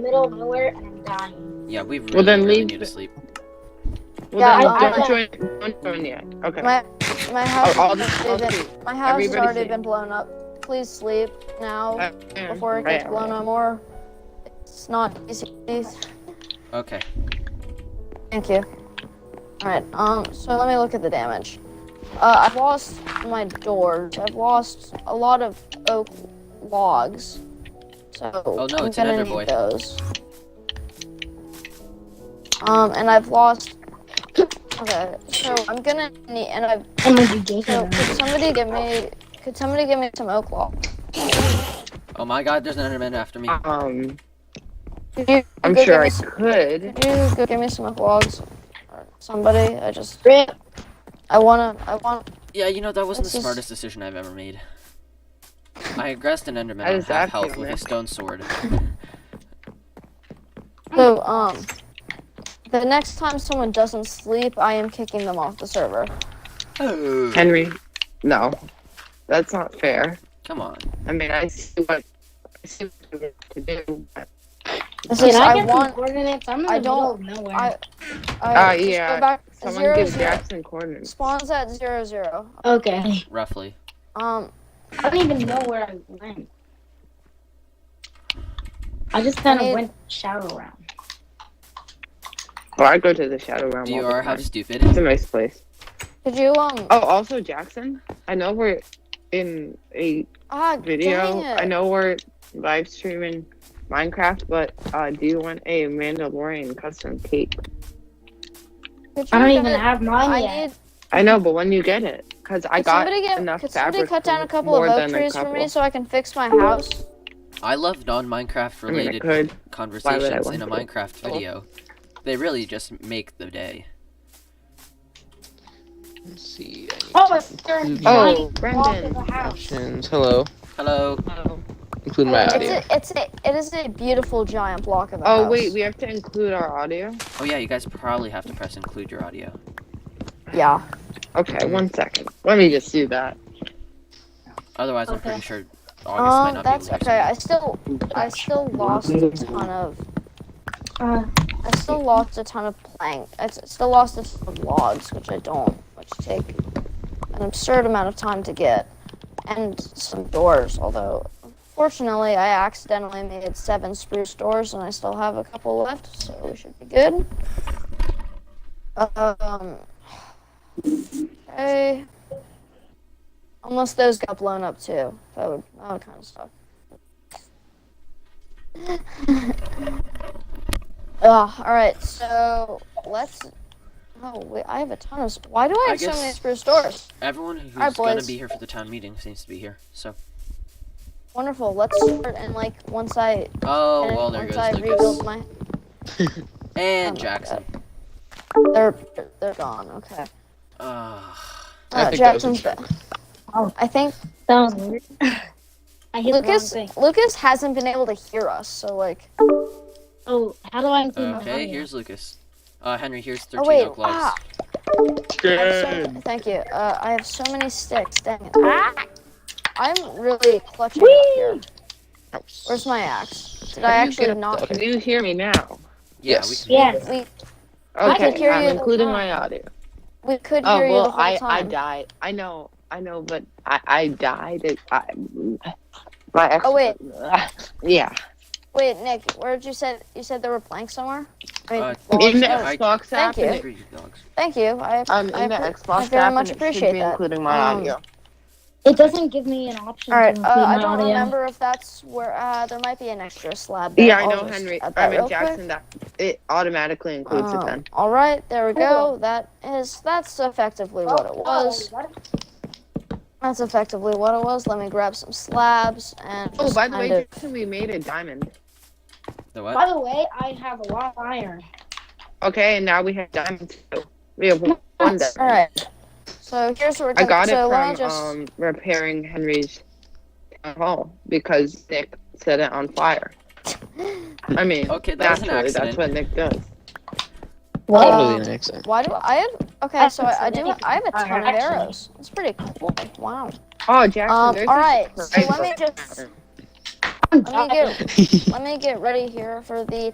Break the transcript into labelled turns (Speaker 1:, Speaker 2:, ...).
Speaker 1: middle of nowhere and I'm dying.
Speaker 2: Yeah, we really,
Speaker 3: Well, then
Speaker 2: really
Speaker 3: leave
Speaker 2: need to
Speaker 3: the-
Speaker 2: sleep.
Speaker 3: Well,
Speaker 4: Yeah,
Speaker 3: then
Speaker 4: I-
Speaker 3: don't
Speaker 4: I-
Speaker 3: join. Don't join yet. Okay.
Speaker 4: My my house
Speaker 3: I'll- I'll
Speaker 4: has
Speaker 3: just- I'll
Speaker 4: already been, my house has
Speaker 3: Everybody
Speaker 4: already
Speaker 3: sleep.
Speaker 4: been blown up. Please sleep now
Speaker 3: I am.
Speaker 4: before it
Speaker 3: I
Speaker 4: gets
Speaker 3: am.
Speaker 4: blown up more. It's not easy. Thank
Speaker 2: Okay.
Speaker 4: you. Alright, um so let me look at the damage. Uh, I've lost my doors. I've lost a lot of oak logs. So
Speaker 2: Oh, no,
Speaker 4: I'm
Speaker 2: it's
Speaker 4: gonna
Speaker 2: another
Speaker 4: need
Speaker 2: boy.
Speaker 4: those. Um and I've lost Okay, so I'm gonna need and I've
Speaker 1: I'm gonna be gay.
Speaker 4: So could somebody give me could somebody give me some oak log?
Speaker 2: Oh my god, there's an Enderman after me.
Speaker 3: Um,
Speaker 4: Could you
Speaker 3: I'm
Speaker 4: go
Speaker 3: sure
Speaker 4: give
Speaker 3: I
Speaker 4: me some,
Speaker 3: could.
Speaker 4: could you go give me some oak logs? Or Somebody, I just
Speaker 1: Rip.
Speaker 4: I wanna I want
Speaker 2: Yeah, you know, that wasn't the
Speaker 4: This is-
Speaker 2: smartest decision I've ever made. I aggressed an Enderman
Speaker 3: I
Speaker 2: on
Speaker 3: was
Speaker 2: half
Speaker 3: acting
Speaker 2: health
Speaker 3: on
Speaker 2: with a
Speaker 3: that.
Speaker 2: stone sword.
Speaker 4: so um the next time someone doesn't sleep, I am kicking them off the server.
Speaker 2: Oh,
Speaker 3: Henry, no, that's not fair.
Speaker 2: come on.
Speaker 3: I mean, I see what I see what you have to do. but-
Speaker 4: This
Speaker 1: Dude,
Speaker 4: is,
Speaker 1: I
Speaker 4: I
Speaker 1: get some
Speaker 4: want
Speaker 1: coordinates. I'm in the
Speaker 4: I
Speaker 1: middle
Speaker 4: don't-
Speaker 1: of nowhere.
Speaker 4: I
Speaker 3: Ah,
Speaker 4: I just
Speaker 3: yeah,
Speaker 4: go back
Speaker 3: Someone
Speaker 4: zero,
Speaker 3: give
Speaker 4: zero.
Speaker 3: Jackson coordinates.
Speaker 4: spawns at zero zero.
Speaker 1: okay.
Speaker 2: Roughly.
Speaker 4: Um
Speaker 1: I don't even know where I went. I just kind
Speaker 4: I-
Speaker 1: of went shower round.
Speaker 3: Well, I go to the Shadow Realm.
Speaker 2: Do you
Speaker 3: all the
Speaker 2: are how
Speaker 3: time.
Speaker 2: stupid?
Speaker 3: It's a nice place.
Speaker 4: could you um
Speaker 3: Oh, also Jackson. I know we're in a
Speaker 4: ah
Speaker 3: Oh, video.
Speaker 4: dang it.
Speaker 3: I know we're live streaming Minecraft, but uh, do you want a Mandalorian custom cape?
Speaker 4: Could
Speaker 1: I don't
Speaker 4: you
Speaker 1: even
Speaker 4: guys-
Speaker 1: have mine
Speaker 4: I
Speaker 1: yet.
Speaker 4: need
Speaker 3: I know, but when you get it, because I
Speaker 4: could
Speaker 3: got
Speaker 4: somebody get,
Speaker 3: enough
Speaker 4: could
Speaker 3: fabric.
Speaker 4: somebody cut down
Speaker 3: for
Speaker 4: a couple of
Speaker 3: more
Speaker 4: oak
Speaker 3: than a
Speaker 4: trees for me
Speaker 3: couple.
Speaker 4: so I can fix my house?
Speaker 2: I love non Minecraft
Speaker 3: I mean, I
Speaker 2: related
Speaker 3: could.
Speaker 2: conversations
Speaker 3: want
Speaker 2: in a
Speaker 3: to?
Speaker 2: Minecraft
Speaker 3: Oh.
Speaker 2: video. They really just make the day.
Speaker 5: Let's see. I
Speaker 1: Oh,
Speaker 5: need
Speaker 1: it's during
Speaker 5: Mhm.
Speaker 3: Oh,
Speaker 1: tiny walk of
Speaker 3: Brendan.
Speaker 1: the
Speaker 5: to
Speaker 1: house.
Speaker 5: options. Hello.
Speaker 2: Hello.
Speaker 5: Include my
Speaker 4: it's
Speaker 5: audio.
Speaker 4: a, it's a, it is a beautiful giant block of a
Speaker 3: Oh
Speaker 4: house.
Speaker 3: wait, we have to include our audio.
Speaker 2: Oh, yeah, you guys probably have to press include your audio.
Speaker 4: yeah.
Speaker 3: Okay, one second. Let me just do that.
Speaker 2: Otherwise, I'm
Speaker 1: Okay.
Speaker 2: pretty sure August
Speaker 3: Oh,
Speaker 2: might
Speaker 4: Um,
Speaker 2: not
Speaker 4: that's
Speaker 2: be able to
Speaker 4: okay.
Speaker 2: hear
Speaker 4: I still I still lost a ton of
Speaker 1: Uh,
Speaker 4: I still lost a ton of plank. I s- still lost a ton of logs, which I don't, which take an absurd amount of time to get, and some doors. Although, fortunately, I accidentally made seven spruce doors, and I still have a couple left, so we should be good. Um. Okay. Unless those got blown up too, that would that would kind of suck. Ugh, all right, so let's. Oh, wait, I have a ton of. sp- Why do I
Speaker 2: I
Speaker 4: have so many
Speaker 2: guess-
Speaker 4: spruce doors?
Speaker 2: Everyone who's
Speaker 4: Alright,
Speaker 2: gonna
Speaker 4: boys.
Speaker 2: be here for the town meeting seems to be here. So,
Speaker 4: Wonderful. Let's start and like once I
Speaker 2: oh
Speaker 4: and
Speaker 2: well, there
Speaker 4: once
Speaker 2: goes
Speaker 4: I
Speaker 2: Lucas
Speaker 4: rebuild my,
Speaker 2: and
Speaker 4: Oh my
Speaker 2: Jackson.
Speaker 4: they're they're gone. Okay.
Speaker 2: Ugh.
Speaker 5: I
Speaker 4: Uh,
Speaker 5: think that was a
Speaker 4: Jackson's back.
Speaker 5: joke.
Speaker 4: Oh, I think
Speaker 1: that was weird. I hit
Speaker 4: Lucas
Speaker 1: the wrong thing.
Speaker 4: Lucas hasn't been able to hear us, so like.
Speaker 1: Oh, how do I include my
Speaker 2: Okay,
Speaker 1: audio?
Speaker 2: Uh, here's Lucas. Uh, Henry, here's 13
Speaker 4: Oh wait.
Speaker 2: oak logs.
Speaker 4: Ah, I have so many- thank you. Uh, I have so many sticks. Dang it.
Speaker 1: Ah!
Speaker 4: I'm really clutching up here. Where's my axe? Did I
Speaker 5: How do you get
Speaker 4: actually
Speaker 5: up
Speaker 4: not?
Speaker 5: the-
Speaker 3: Do you hear me now?
Speaker 2: Yeah, we
Speaker 5: Yes.
Speaker 2: can-
Speaker 1: Yes.
Speaker 4: We I could
Speaker 3: Okay,
Speaker 4: hear
Speaker 3: I'm
Speaker 4: you.
Speaker 3: including my audio.
Speaker 4: we could
Speaker 3: Oh
Speaker 4: hear you the
Speaker 3: well,
Speaker 4: whole
Speaker 3: I I
Speaker 4: time.
Speaker 3: died. I know, I know, but I I died. It, I my ex.
Speaker 4: Oh, wait.
Speaker 3: yeah.
Speaker 4: Wait, Nick, where did you said you said there were planks somewhere? I mean,
Speaker 2: Uh,
Speaker 4: logs?
Speaker 3: In the
Speaker 2: yeah, I-
Speaker 3: Xbox app,
Speaker 4: Thank you.
Speaker 3: and it-
Speaker 2: Three dogs.
Speaker 4: Thank you. I,
Speaker 3: um,
Speaker 4: I
Speaker 3: in the
Speaker 4: appre-
Speaker 3: Xbox
Speaker 4: I very
Speaker 3: app, and it
Speaker 4: much
Speaker 3: should
Speaker 4: appreciate
Speaker 3: be
Speaker 4: that.
Speaker 3: including my
Speaker 4: Um,
Speaker 3: audio.
Speaker 1: It doesn't give me an option
Speaker 4: All right.
Speaker 1: to
Speaker 4: Uh,
Speaker 1: include my
Speaker 4: I don't
Speaker 1: audio.
Speaker 4: remember if that's where uh, there might be an extra slab. There.
Speaker 3: Yeah, I
Speaker 4: I'll
Speaker 3: know,
Speaker 4: just
Speaker 3: Henry.
Speaker 4: add
Speaker 3: I
Speaker 4: that
Speaker 3: mean,
Speaker 4: real
Speaker 3: Jackson. That it automatically
Speaker 4: quick.
Speaker 3: includes it
Speaker 4: Um,
Speaker 3: then.
Speaker 4: all right, there we go.
Speaker 1: Cool.
Speaker 4: That is that's effectively
Speaker 1: Oh,
Speaker 4: what it was.
Speaker 1: oh, what-
Speaker 4: That's effectively what it was. Let me grab some slabs and.
Speaker 3: Oh,
Speaker 4: just
Speaker 3: by the
Speaker 4: kind
Speaker 3: way,
Speaker 4: of-
Speaker 3: Jackson, we made a diamond.
Speaker 2: The what?
Speaker 1: By the way, I have a lot of iron.
Speaker 3: Okay, and now we have diamonds. too. We have one diamond.
Speaker 4: all right. So here's what we're
Speaker 3: I
Speaker 4: gonna.
Speaker 3: got it
Speaker 4: so let
Speaker 3: from
Speaker 4: me just.
Speaker 3: um, repairing Henry's town hall because Nick set it on fire. I mean,
Speaker 2: Okay, that was an
Speaker 3: naturally,
Speaker 2: accident.
Speaker 3: that's what Nick does.
Speaker 4: Wow.
Speaker 5: Totally an accident.
Speaker 4: why do I have? Okay, so I, I do. I have a
Speaker 1: Alright,
Speaker 4: ton of
Speaker 1: actually-
Speaker 4: arrows. It's pretty cool. Wow.
Speaker 3: Oh, Jackson,
Speaker 4: Um,
Speaker 3: there's
Speaker 4: all
Speaker 3: a
Speaker 4: right, so
Speaker 3: surprise
Speaker 4: let me
Speaker 3: for
Speaker 4: just-
Speaker 3: Jackson.
Speaker 1: I'm
Speaker 4: Let me
Speaker 1: dying.
Speaker 4: get let me get ready here for the